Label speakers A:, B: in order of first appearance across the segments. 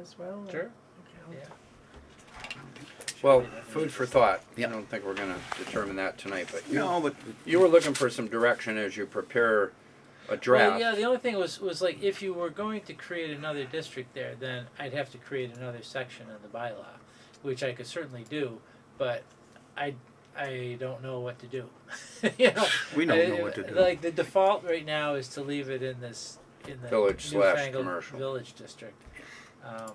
A: as well? or-
B: Sure.
A: Okay.
B: Well, food for thought. I
C: Yep.
B: don't think we're gonna determine that tonight, but you,
C: No, but
B: you were looking for some direction as you prepare a
D: Well,
B: draft.
D: yeah, the only thing was, was like, if you were going to create another district there, then I'd have to create another section in the bylaw, which I could certainly do, but I, I don't know what to do. You know,
C: we don't
D: I-
C: know what to do.
D: Like, the default right now is to leave it in this, in the
B: Village slash
D: newfangled
B: commercial.
D: Village district. Um,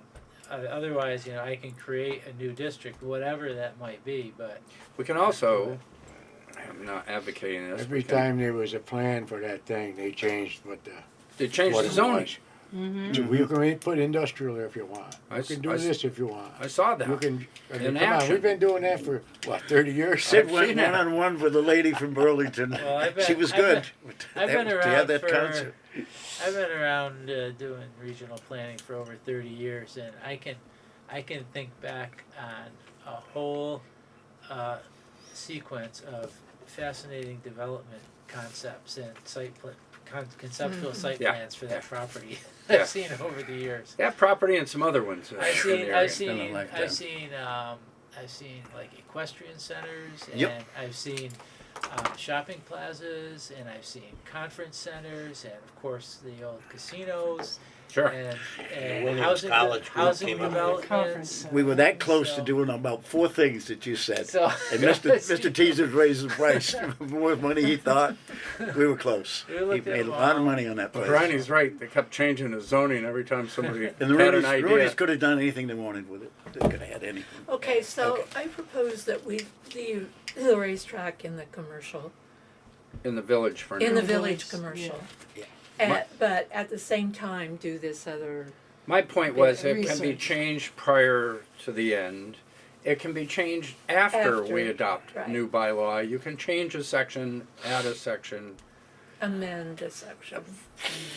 D: o- otherwise, you know, I can create a new district, whatever that might be, but
B: We can also, I'm not advocating this.
E: Every
B: we can-
E: time there was a plan for that thing, they changed what the.
B: They changed
E: what
B: the
E: it
B: zoning.
E: was. So we can put industrial there if you want.
B: I
E: You
B: s-
E: can do
B: I s-
E: this if you want.
B: I saw that.
E: You can, I mean,
B: In
E: come on,
B: action.
E: we've been doing that for, what, thirty years?
B: I've
C: Sid went
B: seen that.
C: one on one with a lady from Burlington.
D: Well, I've
C: she
D: been-
C: was
D: I've
C: good.
D: I've
C: That-
D: been
C: to
D: around
C: have that
D: for-
C: concert.
D: I've been around uh, doing regional planning for over 30 years, and I can, I can think back on a whole uh, sequence of fascinating development concepts and site pla- con- conceptual site
B: Yeah,
D: plans for that
B: yeah.
D: property.
B: Yeah.
D: I've seen over the years.
B: That property and some other ones. uh,
D: I've
B: in the
D: seen,
B: area.
D: I've seen,
C: like that.
D: I've seen, um, I've seen like equestrian centers,
C: Yep.
D: and I've seen um, shopping plazas, and I've seen conference centers, and of course the old casinos,
B: Sure.
D: and,
F: The
D: and
F: Williams
D: housing,
F: College Group
D: housing
F: came up with a
D: developments.
A: Conference.
C: We were that close
D: So-
C: to doing about four things that you said.
D: So,
C: and Mr. Mr. Teaser raised the price more money he thought. We were close.
D: We
C: he
D: looked at
C: made a
D: them
C: lot of
D: all.
C: money on that
B: But
C: place.
B: Ronnie's right. They kept changing the zoning every time somebody
C: And the
B: had
C: Rooney's,
B: an idea.
C: Rooney's could have done anything they wanted with it. They could have had anything.
G: Okay, so
C: Okay.
G: I propose that we leave the racetrack in the commercial,
B: in the village for
G: in
B: now.
G: the village
A: Village,
G: commercial.
C: yeah.
G: At, but at the same time, do this other,
B: My point was it can be
A: Research.
B: changed prior to the end. It can be changed after, we
G: After,
B: adopt
G: right.
B: new bylaw. You can change a section, add a section
G: amend this section.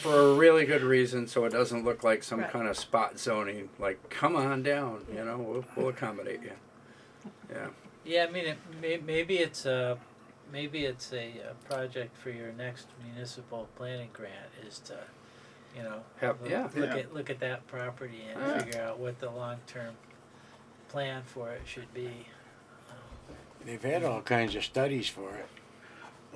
B: for a really good reason, so it doesn't look like some
G: Right.
B: kind of spot zoning. Like, come on down, you know, we'll, we'll accommodate you.
D: Yeah, I mean, it, may, maybe it's a, maybe it's a, uh project for your next municipal planning grant is to, you know,
B: Have-
D: look,
B: yeah.
D: look
C: Yeah.
D: at look at that property and
B: Yeah.
D: figure out what the long term plan for it should be.
E: They've had all kinds of studies for it.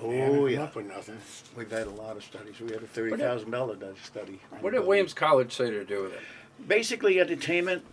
E: They haven't
C: Oh,
E: come
C: yeah.
E: up with nothing.
C: We've had a lot of studies. We had a $30,000 study. on
B: What did
C: building.
B: Williams College say to do with it?
C: Basically, entertainment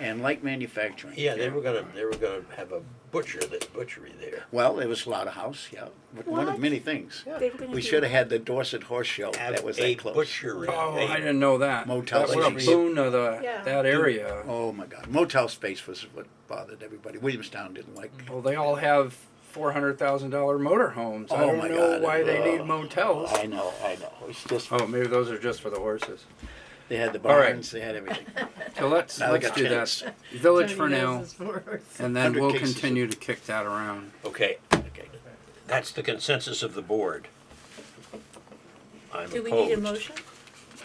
C: and light manufacturing.
F: Yeah, they were gonna, they were gonna have a butcher, that butchery there.
C: Well, it was slaughterhouse, yeah. But One of
G: What?
C: many things.
G: They were gonna
C: We
G: do-
C: should have had the Dorset Horse Show.
F: Have
C: Ah, That was
F: a
C: that close.
F: butchery.
B: Oh,
F: They-
B: I didn't know that.
C: Motel
B: that was a
C: space.
B: boon of the,
G: Yeah.
B: that area.
C: Oh, my God. Motel space was what bothered everybody. Williamstown didn't like.
B: Well, they all have four hundred thousand dollar motor homes. I
C: Oh,
B: don't
C: my
B: know
C: God.
B: why they need
C: Ugh.
B: motels.
C: I know, I know. It's just,
B: Oh, maybe those are just for the horses.
C: they had the
B: All right.
C: barns, they had everything.
B: So let's
C: Now they
B: let's
C: got
B: do
C: tents.
B: that. Village
G: Tony
B: for now,
G: Danza's forwards.
B: and then
C: 100
B: we'll
C: cases.
B: continue to kick that around.
F: Okay,
C: Okay.
F: that's the consensus of the board. I'm
G: Do we need a
F: opposed.
G: motion?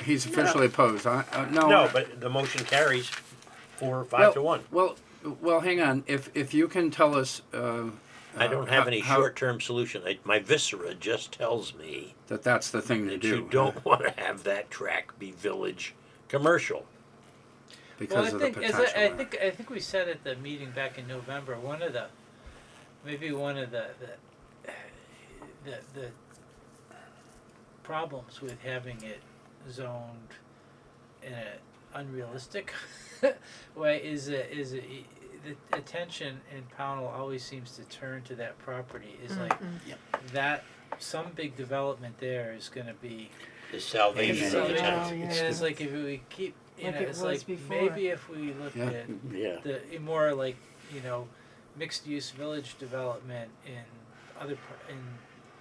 B: He's officially opposed. I, uh, no,
F: No, but the motion carries four,
B: well,
F: five to one.
B: Well, well, hang on. If if you can tell us, uh,
F: I
B: uh,
F: don't have any
B: how-
F: short-term solution. I- My viscera just tells me
B: that that's the thing to
F: that
B: do. uh,
F: you don't wanna have that track be village commercial.
D: Well, I
B: because of
D: think
B: the
D: as
B: potential.
D: I, I
B: there.
D: think I think we said at the meeting back in November one of the maybe one of the the the, the problems with having it zoned in an unrealistic way is that is that y- the attention in Pownell always seems to turn to that property is like
C: Yep.
D: that some big development there is going to be
F: The
C: Amen.
F: salvation of the
D: Amen.
F: town.
A: Yeah.
D: and it's like if we keep you
A: Like
D: know
A: it
D: it's
A: was
D: like
A: before.
D: maybe if we look
B: Yeah.
D: at
C: Yeah.
D: the more like you know mixed use village development in other par- in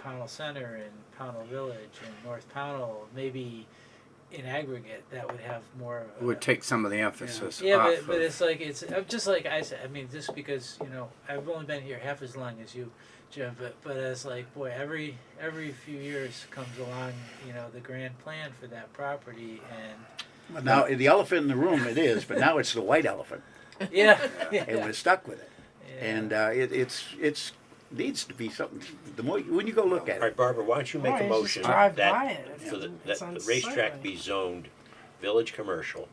D: Pownell Center and Pownell Village and North Pownell maybe in aggregate that would have more of a,
B: would take some of the emphasis
D: yeah
B: off.
D: but, but
B: of-
D: it's like it's uh, just like I said I mean just because you know I've only been here half as long as you Jim but but it's like boy every every few years comes along you know the grand plan for that property and
C: But Now, the elephant in the room it is, but now it's the white elephant,
D: yeah,
C: and we're stuck with it.
D: yeah.
C: And uh, it, it's it's needs to be something. The more when you go look
F: All
C: at
F: right,
C: it,
F: Barbara, why don't you make
A: Why,
F: a
A: it's just
F: motion
A: drive by
F: that
A: it.
F: for the,
A: It's
F: that the racetrack
A: unsightly.
F: be zoned village commercial